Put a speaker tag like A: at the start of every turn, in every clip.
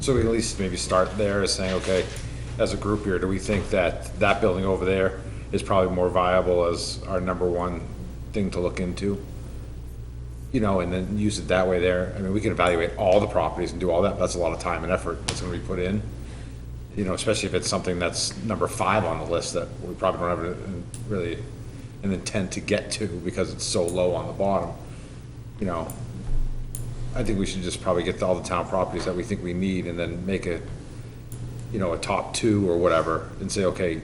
A: So we at least maybe start there as saying, okay, as a group here, do we think that that building over there is probably more viable as our number one thing to look into? You know, and then use it that way there. I mean, we can evaluate all the properties and do all that, but that's a lot of time and effort that's gonna be put in. You know, especially if it's something that's number five on the list that we probably don't have a- really an intent to get to because it's so low on the bottom. You know, I think we should just probably get all the town properties that we think we need and then make a, you know, a top two or whatever and say, okay,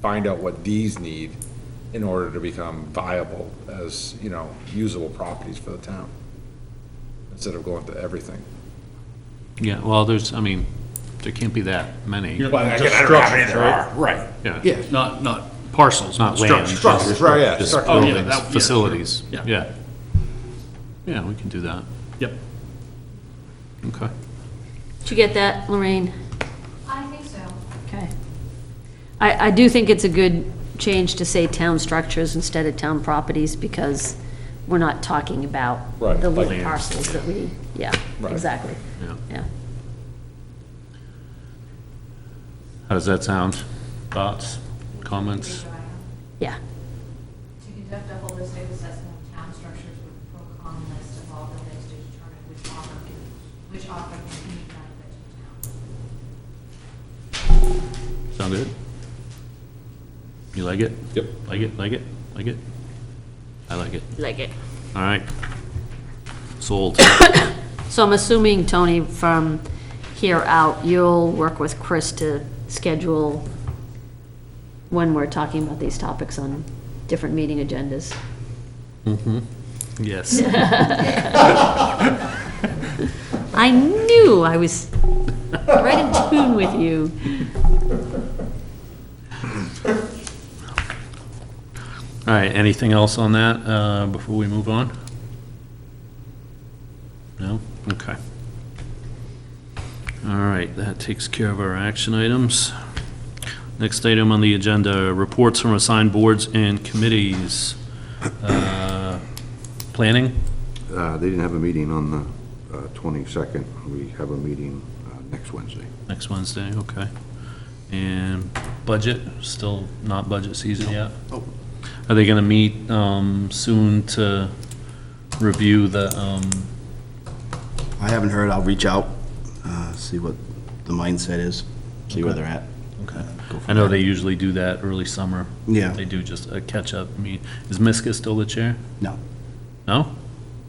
A: find out what these need in order to become viable as, you know, usable properties for the town. Instead of going to everything.
B: Yeah, well, there's, I mean, there can't be that many.
C: You're-
A: I
C: just
A: don't know how
C: structures,
A: many there
C: right?
A: are, right.
B: Yeah,
C: Yeah, not, not parcels, but
B: not land.
C: structures.
A: Structures,
B: just-
A: right, yeah,
B: just
A: structures.
C: Oh, yeah,
B: buildings,
C: that- yeah, sure.
B: Facilities,
C: Yeah.
B: yeah. Yeah, we can do that,
C: Yep.
B: okay.
D: Did you get that, Lorraine?
E: I think so.
D: Okay. I, I do think it's a good change to say town structures instead of town properties, because we're not talking about
A: Right,
D: the
A: like-
D: little parcels that we, yeah,
A: Right.
D: exactly,
B: Yeah.
D: yeah.
B: How does that sound? Thoughts, comments?
D: Yeah,
E: To conduct a holistic assessment of town structures with a pro-con list of all buildings to determine which offer, which offer can be benefit to the town.
B: Sound good? You like it?
A: Yep.
B: Like it, like it, like it? I like it,
D: like it.
B: all right. Sold.
D: So I'm assuming, Tony, from here out, you'll work with Chris to schedule when we're talking about these topics on different meeting agendas.
B: Yes.
D: I knew I was right in tune with you.
B: All right, anything else on that uh, before we move on? No? Okay. All right, that takes care of our action items. Next item on the agenda, reports from assigned boards and committees. Uh, Planning?
F: Uh, They didn't have a meeting on the uh, 22nd. We have a meeting uh, next Wednesday.
B: Next Wednesday, okay. And budget, still not budget season yet? Are they gonna meet, um, soon to review the, um,
G: I haven't heard, I'll reach out, uh, see what the mindset is, see where
B: Okay.
G: they're at. Uh,
B: okay.
G: Go from
B: I know
G: there.
B: they usually do that early summer.
G: Yeah.
B: They do just a catch-up meet. Is Miska still the chair?
G: No,
B: No?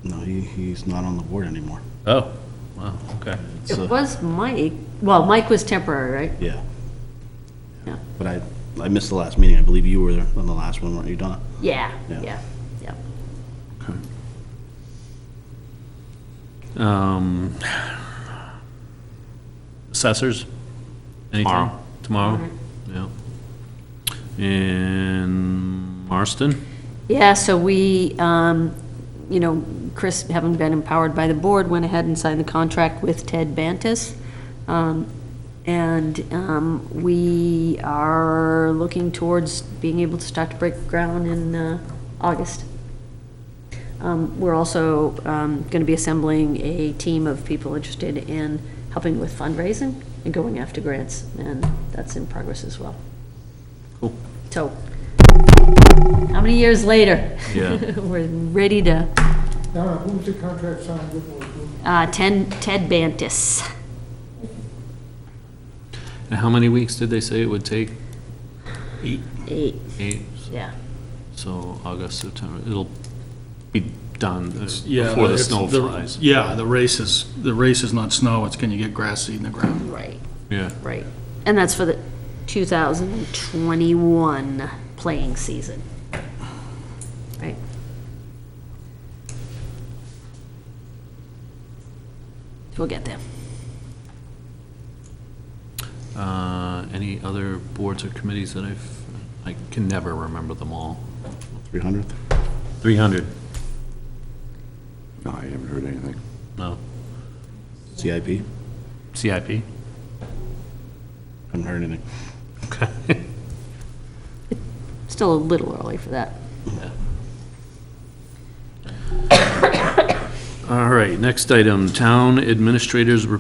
G: no, he, he's not on the board anymore.
B: Oh, wow, okay.
G: It's,
D: It
G: uh,
D: was Mike, well, Mike was temporary, right?
G: Yeah.
D: Yeah.
G: But I, I missed the last meeting, I believe you were there on the last one, weren't you, Donna?
D: Yeah,
G: Yeah.
D: yeah, yeah.
B: Okay. Um, Assessors? Anything? Tomorrow? Yeah. And Marston?
D: Yeah, so we, um, you know, Chris, having been empowered by the board, went ahead and signed the contract with Ted Bantus. Um, And um, we are looking towards being able to start to break ground in uh, August. Um, We're also going to be assembling a team of people interested in helping with fundraising and going after grants, and that's in progress as well.
B: Cool.
D: So, how many years later?
B: Yeah.
D: We're ready to,
H: Donna, who's the contract signed with, or who?
D: uh, Ted, Ted Bantis.
B: And how many weeks did they say it would take?
D: Eight,
B: Eight?
D: yeah.
B: So August, September, it'll be done uh,
C: Yeah,
B: before the
C: it's-
B: snow flies.
C: Yeah, the race is, the race is not snow, it's can you get grass seed in the ground?
D: Right,
B: Yeah.
D: right. And that's for the 2021 playing season. Right. We'll get there.
B: Uh, Any other boards or committees that I've, I can never remember them all.
G: 300th?
B: 300?
F: No, I haven't heard anything.
B: No.
G: CIP?
B: CIP?
G: Haven't heard anything.
B: Okay.
D: Still a little early for that.
B: All right, next item, Town Administrator's Report